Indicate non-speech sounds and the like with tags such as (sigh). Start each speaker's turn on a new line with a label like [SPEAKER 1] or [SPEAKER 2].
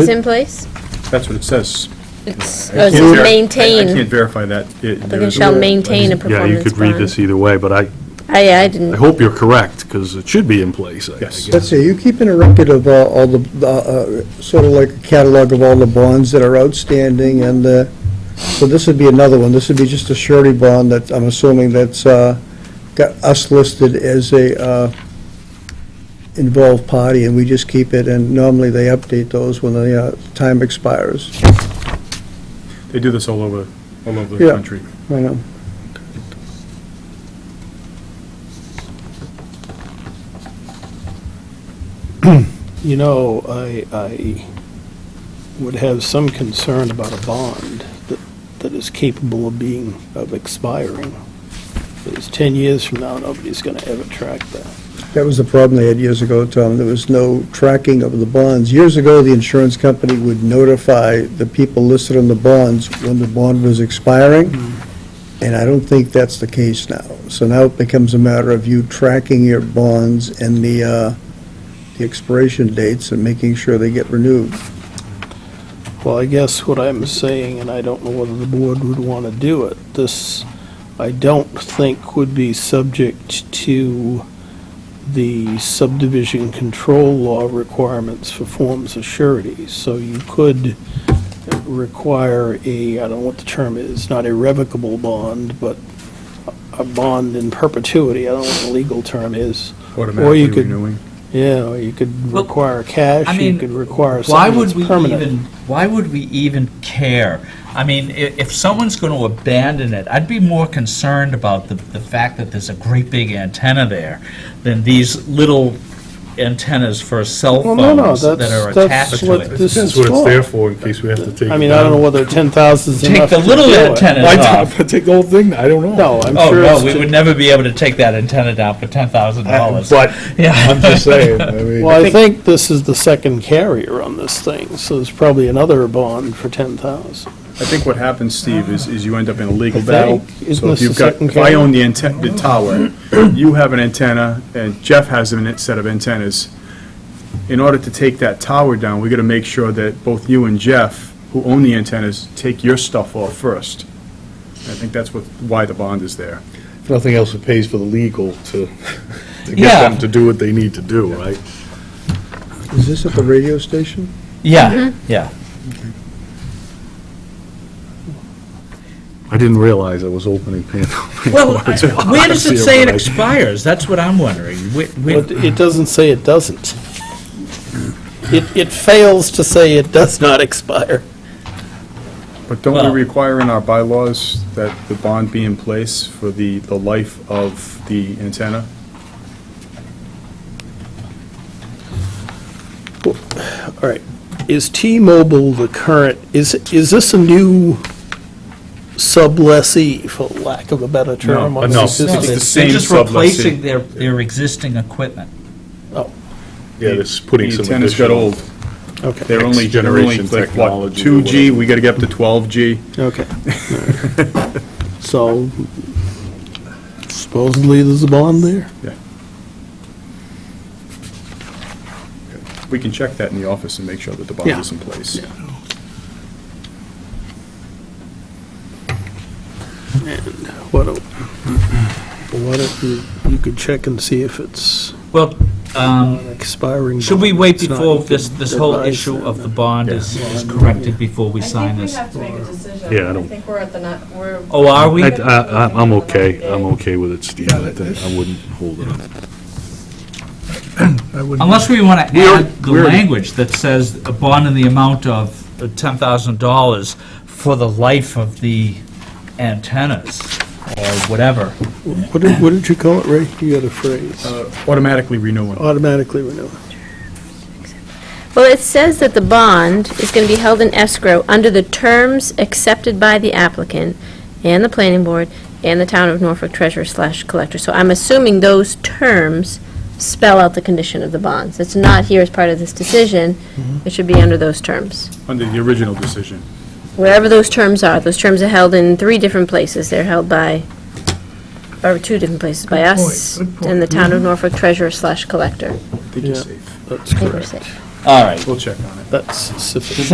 [SPEAKER 1] It's in place?
[SPEAKER 2] That's what it says.
[SPEAKER 1] It's,
[SPEAKER 2] I
[SPEAKER 1] or is
[SPEAKER 2] can't ver-
[SPEAKER 1] it
[SPEAKER 2] I-
[SPEAKER 1] maintain?
[SPEAKER 2] I can't verify that. It- there
[SPEAKER 1] Applicant
[SPEAKER 2] is-
[SPEAKER 1] shall maintain a
[SPEAKER 3] Yeah, you
[SPEAKER 1] performance
[SPEAKER 3] could read this
[SPEAKER 1] bond.
[SPEAKER 3] either way, but I,
[SPEAKER 1] I, I
[SPEAKER 3] I
[SPEAKER 1] didn't,
[SPEAKER 3] hope you're correct, because it should be in place, I I
[SPEAKER 2] Yes.
[SPEAKER 3] guess.
[SPEAKER 4] Let's see, you keeping a record of uh, all the, uh, uh, sort of like a catalog of all the bonds that are outstanding, and, uh, so this would be another one, this would be just a surety bond that, I'm assuming that's uh, got us listed as a uh, involved party, and we just keep it, and normally they update those when the uh, time expires.
[SPEAKER 2] They do this all over, all over the
[SPEAKER 4] Yeah.
[SPEAKER 2] country.
[SPEAKER 4] I know.
[SPEAKER 5] You know, I, I would have some concern about a bond that, that is capable of being, of expiring. Because 10 years from now, nobody's going to ever track that.
[SPEAKER 4] That was the problem they had years ago, Tom. There was no tracking of the bonds. Years ago, the insurance company would notify the people listed on the bonds when the bond was expiring, and I don't think that's the case now. So now it becomes a matter of you tracking your bonds and the, uh, the expiration dates and making sure they get renewed.
[SPEAKER 5] Well, I guess what I'm saying, and I don't know whether the board would want to do it, this, I don't think would be subject to the subdivision control law requirements for forms of surety. So you could require a, I don't know what the term is, not irrevocable bond, but a bond in perpetuity, I don't know what the legal term is. Or
[SPEAKER 2] Automatically
[SPEAKER 5] you could,
[SPEAKER 2] renewing.
[SPEAKER 5] Yeah, or you could
[SPEAKER 6] Well,
[SPEAKER 5] require
[SPEAKER 6] I
[SPEAKER 5] cash, you
[SPEAKER 6] mean,
[SPEAKER 5] could require
[SPEAKER 6] why
[SPEAKER 5] something
[SPEAKER 6] would
[SPEAKER 5] that's
[SPEAKER 6] we
[SPEAKER 5] permanent.
[SPEAKER 6] even, why would we even care? I mean, i- if someone's going to abandon it, I'd be more concerned about the, the fact that there's a great big antenna there than these little antennas for cell
[SPEAKER 5] Well, no, no,
[SPEAKER 6] phones that
[SPEAKER 5] that's-
[SPEAKER 6] are
[SPEAKER 5] that's
[SPEAKER 6] attached to
[SPEAKER 5] what
[SPEAKER 6] it.
[SPEAKER 5] this
[SPEAKER 3] That's
[SPEAKER 5] is
[SPEAKER 3] what it's
[SPEAKER 5] for.
[SPEAKER 3] there for, in case we have to take
[SPEAKER 5] I mean, I don't know whether 10,000 is
[SPEAKER 6] Take
[SPEAKER 5] enough.
[SPEAKER 6] the
[SPEAKER 5] to
[SPEAKER 6] little
[SPEAKER 5] do it.
[SPEAKER 6] antennas off.
[SPEAKER 3] take the whole thing? I don't know.
[SPEAKER 5] No, I'm
[SPEAKER 6] Oh,
[SPEAKER 5] sure
[SPEAKER 6] no, we
[SPEAKER 5] it's,
[SPEAKER 6] would
[SPEAKER 5] ju-
[SPEAKER 6] never be able to take that antenna down for ten thousand
[SPEAKER 3] Uh,
[SPEAKER 6] dollars.
[SPEAKER 3] But,
[SPEAKER 6] Yeah.
[SPEAKER 3] I'm just saying,
[SPEAKER 6] (laughs)
[SPEAKER 3] I mean.
[SPEAKER 5] well, I think this is the second carrier on this thing, so there's probably another bond for 10,000.
[SPEAKER 2] I think what happens, Steve, is, is you end up in a legal
[SPEAKER 5] I
[SPEAKER 2] battle.
[SPEAKER 5] think, isn't
[SPEAKER 2] So if
[SPEAKER 5] this
[SPEAKER 2] you've
[SPEAKER 5] the
[SPEAKER 2] got,
[SPEAKER 5] second
[SPEAKER 2] if I
[SPEAKER 5] case?
[SPEAKER 2] own the antenna, the tower, you have an antenna, and Jeff has a net- set of antennas. In order to take that tower down, we gotta make sure that both you and Jeff, who own the antennas, take your stuff off first. I think that's what, why the bond is there.
[SPEAKER 3] If Nothing else, it pays for the legal to, to
[SPEAKER 6] Yeah.
[SPEAKER 3] get them to do what they need to do, right?
[SPEAKER 4] Is this at the radio station?
[SPEAKER 6] Yeah, yeah.
[SPEAKER 3] I didn't realize I was opening Pandora's
[SPEAKER 6] (laughs)
[SPEAKER 3] (laughs)
[SPEAKER 6] Well,
[SPEAKER 3] box.
[SPEAKER 6] I- where does it say
[SPEAKER 3] Yeah,
[SPEAKER 6] it
[SPEAKER 3] right.
[SPEAKER 6] expires? That's what I'm wondering. Wh- wh-
[SPEAKER 5] But it doesn't say it doesn't. It, it fails to say it does not expire.
[SPEAKER 2] But don't
[SPEAKER 6] Well-
[SPEAKER 2] we require in our bylaws that the bond be in place for the, the life of the antenna?
[SPEAKER 5] All right, is T-Mobile the current, is, is this a new sublessee, for lack of a better term? on
[SPEAKER 2] no,
[SPEAKER 5] this
[SPEAKER 2] it's
[SPEAKER 6] No,
[SPEAKER 5] existing-
[SPEAKER 2] the
[SPEAKER 6] they're-
[SPEAKER 2] same
[SPEAKER 6] They're just
[SPEAKER 2] sublessee.
[SPEAKER 6] replacing their, their existing equipment.
[SPEAKER 3] Yeah, it's putting some
[SPEAKER 2] The antennas got
[SPEAKER 3] additional.
[SPEAKER 2] old.
[SPEAKER 5] Okay.
[SPEAKER 2] They're only, they're only
[SPEAKER 3] Next-generation
[SPEAKER 2] like, what,
[SPEAKER 3] technology or
[SPEAKER 2] 2G?
[SPEAKER 3] whatever.
[SPEAKER 2] We gotta get up to 12G.
[SPEAKER 5] Okay. So supposedly there's a bond there?
[SPEAKER 2] We can check that in the office and make sure that the bond
[SPEAKER 5] Yeah.
[SPEAKER 2] is in place.
[SPEAKER 5] What, do- what if you, you could check and see if it's
[SPEAKER 6] Well, um,
[SPEAKER 5] expiring?
[SPEAKER 6] should we
[SPEAKER 5] bond.
[SPEAKER 6] wait
[SPEAKER 5] It's not-
[SPEAKER 6] before
[SPEAKER 5] you could
[SPEAKER 6] this, this whole
[SPEAKER 5] advise
[SPEAKER 6] issue
[SPEAKER 5] them
[SPEAKER 6] of the
[SPEAKER 5] that-
[SPEAKER 6] bond is is corrected before we sign this?
[SPEAKER 7] I think we have to make a decision.
[SPEAKER 3] Yeah, I don't-
[SPEAKER 7] think we're at the, not- we're.
[SPEAKER 6] Oh, are we?
[SPEAKER 3] I, I, I'm- I'm okay, I'm okay with it, Steve, I think- I wouldn't hold it up.
[SPEAKER 6] Unless we want to add the language that says a bond in the amount of $10,000 for the life of the antennas or whatever.
[SPEAKER 5] What did, what did you call it, Ray? You had a phrase.
[SPEAKER 2] Automatically renewing.
[SPEAKER 5] Automatically renew.
[SPEAKER 1] well, it says that the bond is going to be held in escrow under the terms accepted by the applicant and the planning board and the town of Norfolk treasurer slash collector. So I'm assuming those terms spell out the condition of the bonds. It's not here as part of this decision.
[SPEAKER 3] Mm-hmm.
[SPEAKER 1] It should be under those terms.
[SPEAKER 2] Under the original decision.
[SPEAKER 1] Wherever those terms are, those terms are held in three different places. They're held by, or two different places, by us and the town of Norfolk treasurer slash collector.
[SPEAKER 2] I think you're
[SPEAKER 5] Yeah.
[SPEAKER 2] safe.
[SPEAKER 5] That's
[SPEAKER 1] I think we're
[SPEAKER 5] correct.
[SPEAKER 1] safe.
[SPEAKER 6] All right.
[SPEAKER 2] We'll check on it.
[SPEAKER 5] That's sufficient.